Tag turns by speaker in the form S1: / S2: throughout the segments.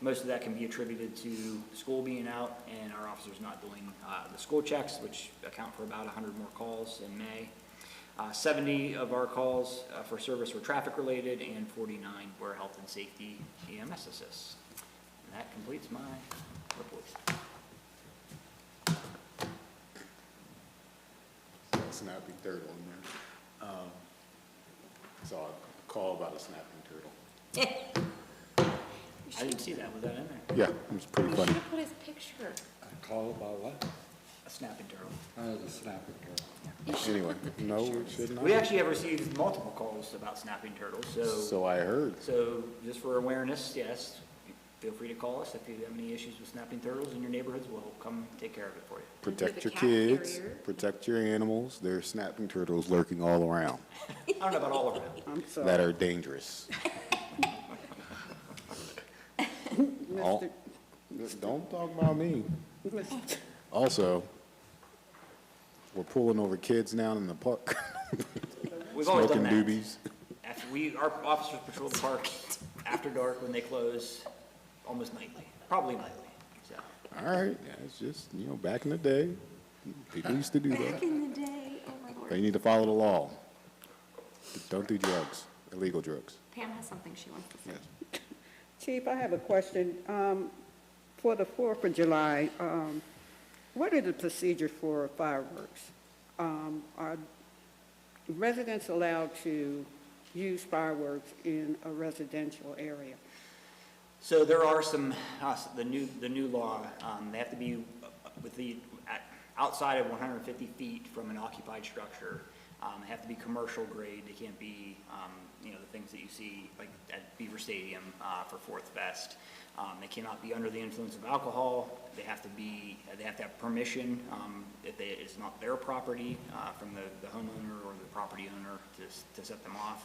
S1: Most of that can be attributed to school being out and our officers not doing uh, the school checks, which account for about 100 more calls in May. Uh, 70 of our calls uh, for service were traffic-related, and 49 were health and safety EMS assists. And that completes my report.
S2: a snapping turtle in there. Um, So I call about a snapping turtle.
S1: I didn't see that, was that in there?
S2: Yeah, it was pretty funny.
S3: Put his picture.
S4: A call about what?
S1: A snapping turtle.
S4: Oh, the snapping turtle.
S2: Anyway, no, it should not.
S1: We actually have received multiple calls about snapping turtles, so,
S2: So I heard.
S1: so just for awareness, yes, feel free to call us if you have any issues with snapping turtles in your neighborhoods, we'll come take care of it for you.
S2: Protect
S3: With a
S2: your
S3: cat
S2: kids,
S3: carrier.
S2: protect your animals. There are snapping turtles lurking all around
S1: I don't know about all of it.
S5: I'm sorry.
S2: that are dangerous. All-
S5: Mr.
S2: Don't talk about me.
S5: Mr.
S2: Also, we're pulling over kids now in the park,
S1: We've always
S2: smoking
S1: done that.
S2: doobies.
S1: After we, our officers patrol the park after dark when they close, almost nightly, probably nightly, so.
S2: All right, yeah, it's just, you know, back in the day, people used to do that.
S3: Back in the day, oh my
S2: They
S3: lord.
S2: need to follow the law. Don't do drugs, illegal drugs.
S3: Pam has something she wants to say.
S2: Yes.
S5: Chief, I have a question. Um, For the Fourth of July, um, what are the procedures for fireworks? Um, Are residents allowed to use fireworks in a residential area?
S1: So there are some, uh, the new, the new law, um, they have to be with the, at- outside of 150 feet from an occupied structure. Um, They have to be commercial grade, they can't be, um, you know, the things that you see like at Beaver Stadium uh, for Fourth Fest. Um, They cannot be under the influence of alcohol, they have to be, they have to have permission, um, if they, it's not their property, uh, from the the homeowner or the property owner to, s- to set them off.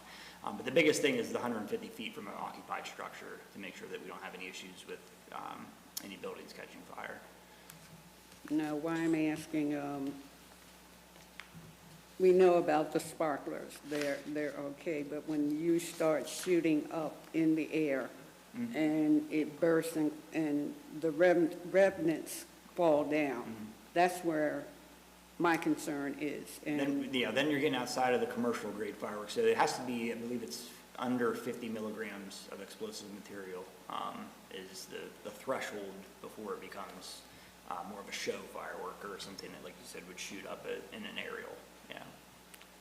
S1: Um, But the biggest thing is the 150 feet from an occupied structure to make sure that we don't have any issues with um, any buildings catching fire.
S5: Now, why I'm asking, um, we know about the sparklers, they're, they're okay, but when you start shooting up in the air
S1: Mm-hmm.
S5: and it bursts and, and the rev- remnants fall down,
S1: Mm-hmm.
S5: that's where my concern is. And
S1: Then, yeah, then you're getting outside of the commercial grade fireworks, so it has to be, I believe it's under 50 milligrams of explosive material um, is the, the threshold before it becomes uh, more of a show firework or something that, like you said, would shoot up a- in an aerial, yeah.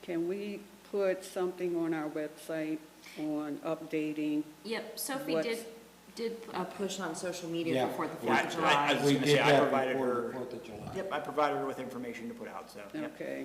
S5: can we put something on our website on updating?
S3: Yep, Sophie
S5: What-
S3: did, did uh, push on social media
S4: Yeah.
S3: before the
S1: Yeah,
S3: Fourth
S1: I-
S3: of
S1: I- I
S3: July.
S1: was gonna say, I provided
S4: before
S1: her-
S4: the Fourth of July.
S1: Yep, I provided her with information to put out, so, yep.
S5: Okay,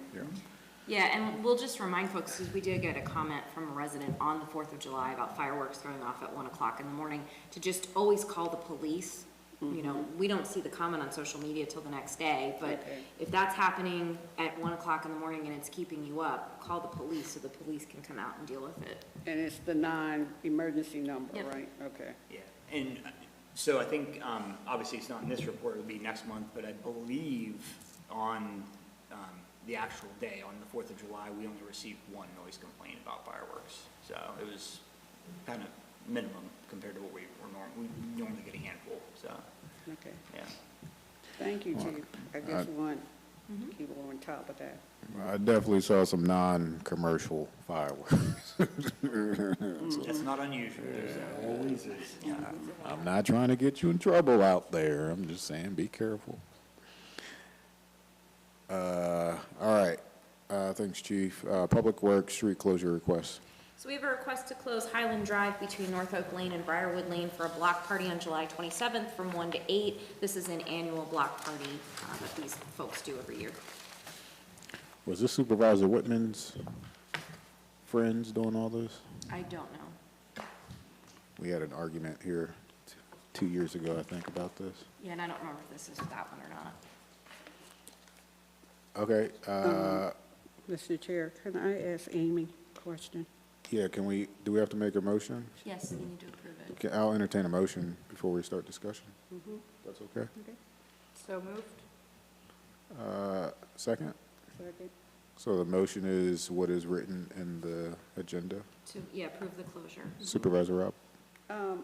S3: Yeah, and we'll just remind folks, because we did get a comment from a resident on the Fourth of July about fireworks going off at one o'clock in the morning, to just always call the police. You know, we don't see the comment on social media till the next day, but
S5: Okay.
S3: if that's happening at one o'clock in the morning and it's keeping you up, call the police so the police can come out and deal with it.
S5: and it's the non-emergency number,
S3: Yep.
S5: right? Okay.
S1: Yeah, and uh, so I think, um, obviously, it's not in this report, it'll be next month, but I believe on um, the actual day, on the 4th of July, we only received one noise complaint about fireworks. So it was kind of minimum compared to what we were norm, we normally get a handful, so,
S5: Okay.
S1: yeah.
S5: Thank you, Chief. I just want to keep on top of that.
S2: I definitely saw some non-commercial fireworks.
S1: That's not unusual.
S4: Always is.
S1: Yeah.
S2: I'm not trying to get you in trouble out there. I'm just saying, be careful. Uh, all right. Uh, thanks, Chief. Uh, Public Works street closure request.
S3: So we have a request to close Highland Drive between North Oak Lane and Briarwood Lane for a block party on July 27th from 1 to 8. This is an annual block party uh, that these folks do every year.
S2: Was this Supervisor Whitman's friends doing all this?
S3: I don't know.
S2: We had an argument here t- two years ago, I think, about this.
S3: Yeah, and I don't remember if this is that one or not.
S2: Okay, uh,
S5: Mr. Chair, can I ask Amy a question?
S2: yeah, can we, do we have to make a motion?
S3: Yes, you need to approve it.
S2: Okay, I'll entertain a motion before we start discussion. That's okay.
S3: So moved?
S2: Uh, Second?
S5: Second.
S2: So the motion is what is written in the agenda.
S3: Mm-hmm. To, yeah, approve the closure.
S2: Supervisor Rob?
S5: Um,